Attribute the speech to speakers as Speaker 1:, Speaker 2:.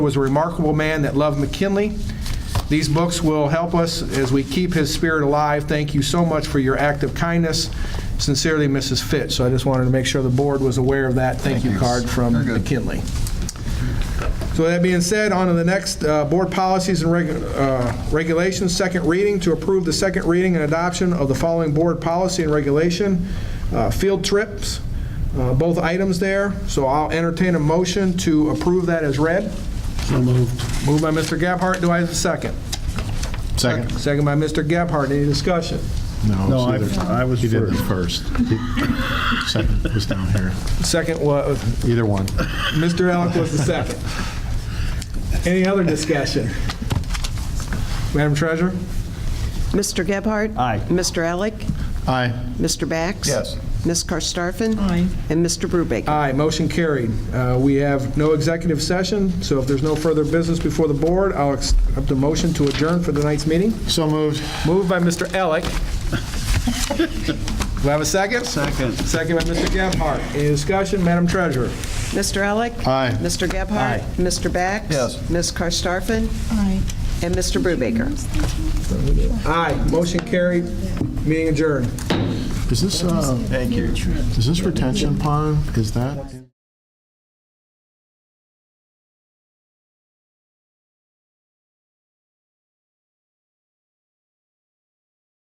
Speaker 1: was a remarkable man that loved McKinley. These books will help us as we keep his spirit alive. Thank you so much for your act of kindness. Sincerely, Mrs. Fitch. So I just wanted to make sure the board was aware of that thank you card from
Speaker 2: Very good.
Speaker 1: McKinley. So that being said, on to the next, uh, board policies and regu- uh, regulations, second reading, to approve the second reading and adoption of the following board policy and regulation, uh, field trips, uh, both items there. So I'll entertain a motion to approve that as read. Moved by Mr. Gabhart, do I have a second?
Speaker 2: Second.
Speaker 1: Second by Mr. Gabhart, any discussion?
Speaker 2: No,
Speaker 3: I- I was
Speaker 2: You did the first. Second was down here.
Speaker 1: Second was,
Speaker 2: Either one.
Speaker 1: Mr. Alec was the second. Any other discussion? Madam Treasurer?
Speaker 4: Mr. Gebhardt?
Speaker 3: Aye.
Speaker 4: Mr. Alec?
Speaker 2: Aye.
Speaker 4: Mr. Bax?
Speaker 2: Yes.
Speaker 4: Ms. Karstafen? Aye. And Mr. Brubaker?
Speaker 1: Aye, motion carried. Uh, We have no executive session, so if there's no further business before the board, I'll accept the motion to adjourn for tonight's meeting.
Speaker 2: So moved.
Speaker 1: Moved by Mr. Elick. Do I have a second? Second. Second by Mr. Gebhardt. Any discussion, Madam Treasurer?
Speaker 4: Mr. Alec?
Speaker 2: Aye.
Speaker 4: Mr. Gebhardt?
Speaker 1: Aye.
Speaker 4: Mr. Bax?
Speaker 2: Yes.
Speaker 4: Ms. Karstafen?
Speaker 5: Aye.
Speaker 4: And Mr. Brubaker?
Speaker 1: Aye, motion carried, meeting adjourned.
Speaker 2: Is this, uh,
Speaker 3: Thank you.
Speaker 2: is this retention pond? Is that?